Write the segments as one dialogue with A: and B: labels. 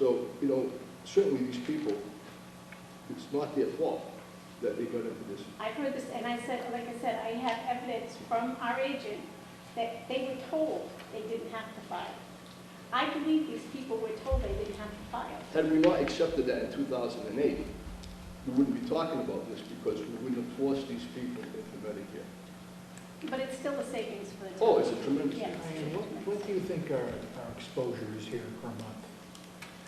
A: you know, certainly these people, it's not their fault that they got into this.
B: I've heard this, and I said, like I said, I have evidence from our agent that they were told they didn't have to file. I believe these people were told they didn't have to file.
A: Had we not accepted that in 2008, we wouldn't be talking about this because we wouldn't have forced these people into Medicare.
B: But it's still a savings for the town.
A: Oh, it's a tremendous,
B: Yes.
C: Diane, what, what do you think our, our exposure is here per month?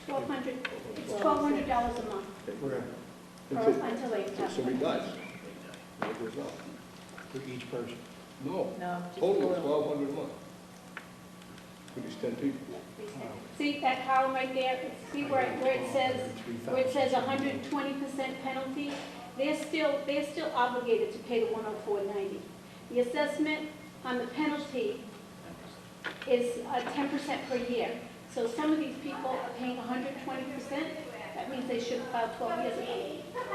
B: Twelve hundred, it's twelve hundred dollars a month
C: We're, at-
B: for,
A: until
B: until they
A: until
B: have.
A: somebody dies. And it goes up.
C: for each person?
A: No,
D: No. just
A: total
D: a little.
A: 1,200 a month. For these 10 people.
B: See that column right there, see where, it- where it says, where it says hundred and
C: 120.
B: twenty percent penalty, they're still, they're still obligated to pay the one oh four ninety. The assessment on the penalty is uh, ten percent per year. So some of these people are paying hundred and twenty percent, that means they should have filed twelve years ago.
C: Well,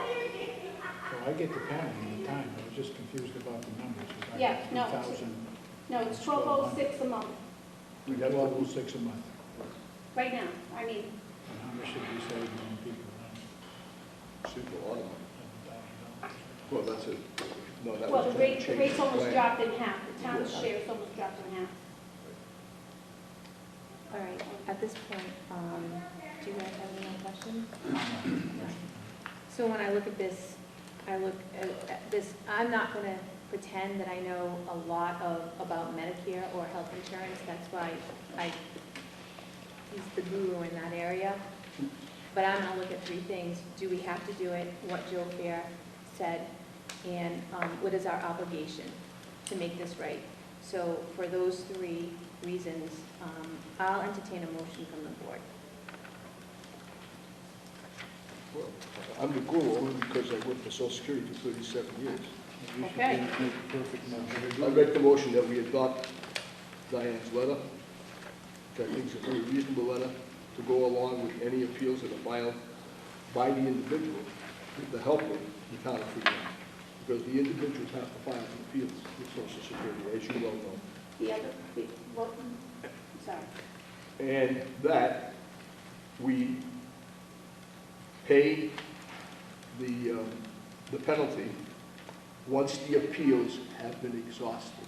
C: I get the penalty and the time, I was just confused about the numbers. 'cause I
B: Yeah,
C: got
B: no,
C: 3,000,
B: No, it's twelve oh six a month,
A: We have
C: Twelve oh
A: to,
C: six a month.
B: right now, I mean,
C: And how much should we save on people?
A: super a lot of money.
C: $100,000.
A: Well, that's it. No, that
B: well,
A: was
B: the rate, the
A: changed.
B: rate's almost
A: Right.
B: dropped in half, the town's
A: Yeah.
B: share is almost dropped in half.
D: All right, at this point, um, do you guys have any more questions? So when I look at this, I look at at this, I'm not going to pretend that I know a lot of, about Medicare or health insurance. That's why I, he's the guru in that area. But I'm going to look at three things. Do we have to do it? What Joe Fair said? And um, what is our obligation to make this right? So for those three reasons, um, I'll entertain a motion from the board.
A: Well, I'm the guru only because I worked for Social Security for 37 years.
C: You should
D: Okay.
C: be- make the perfect
A: I
C: number.
A: make the motion that we adopt Diane's letter, which I think is a very reasonable letter, to go along with any appeals that are filed by the individual with the help of the town of Freetown. Because the individuals have to file appeals with Social Security, as you well know.
B: The other, the, what, sorry.
A: And that we pay the, um, the penalty once the appeals have been exhausted.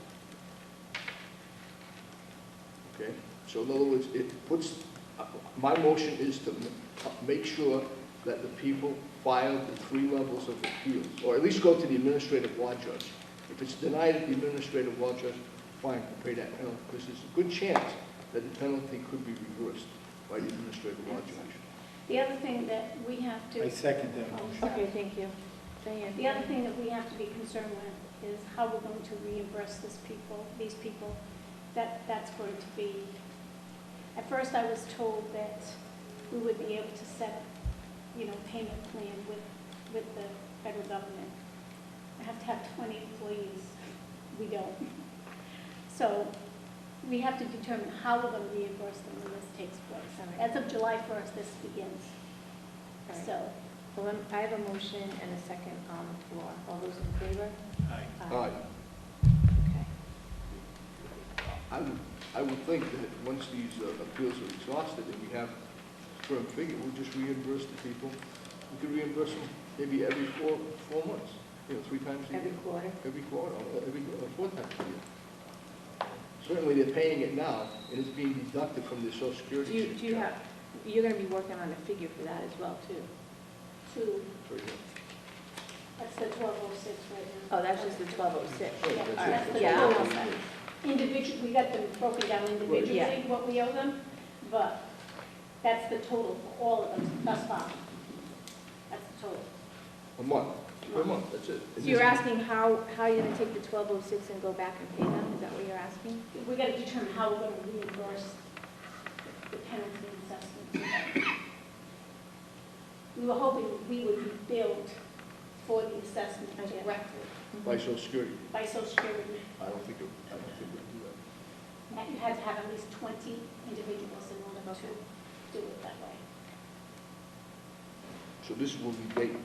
A: Okay? So in other words, it puts, uh, my motion is to m- uh, make sure that the people file the three levels of appeals, or at least go to the administrative law judge. If it's denied at the administrative law judge, fine, we'll pay that penalty, because there's a good chance that the penalty could be reversed by the administrative law judge.
B: The other thing that we have to.
C: I second that
B: Oh,
C: motion.
B: sorry.
D: Okay, thank you. Diane?
B: The other thing that we have to be concerned with is how we're going to reimburse this people, these people. That, that's going to be, at first I was told that we would be able to set, you know, payment plan with, with the federal government. I have to have twenty employees, we don't. So we have to determine how we're going to reimburse them when this takes place.
D: All right.
B: As of July first, this begins,
D: All right.
B: so.
D: So I'm- I have a motion and a second on the floor. All those in favor?
C: Aye.
A: Aye.
D: Okay.
A: I would, I would think that once these uh, appeals are exhausted and we have firm figure, we'll just reimburse the people. We could reimburse them maybe every four, four months, you know, three times a year.
D: Every quarter?
A: Every quarter, or every, or four times a year. Certainly, they're paying it now, and it's being deducted from their social
D: Do you,
A: security.
D: do you have, you're going to be working on a figure for that as well, too?
B: To,
A: For example.
B: that's the twelve oh six right now.
D: Oh, that's just the 1206.
A: Oh,
B: Yeah,
A: that's it.
B: that's the
D: Yeah.
B: total set. Individual, we got them broken down individually,
D: Yeah.
B: what we owe them, but that's the total for all of them thus far. That's the total.
A: A month, per month, that's it.
D: So you're asking how, how you're going to take the 1206 and go back and pay them? Is that what you're asking?
B: We gotta determine how we're gonna reimburse the penalty and assessment. We were hoping we would be billed for the assessment directly
A: By social security,
B: by social security.
A: I don't think, it- I don't think we'll do that.
B: And you had to have at least twenty individuals in order to do it that way.
A: So this will be date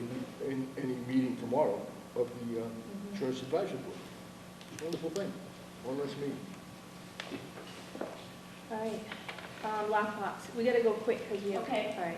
A: in, in any meeting tomorrow of the uh, insurance advisory board. It's a wonderful thing, one less meeting.
D: All right. Um, Lockbox, we got to go quick because we have.
B: Okay.
D: All right.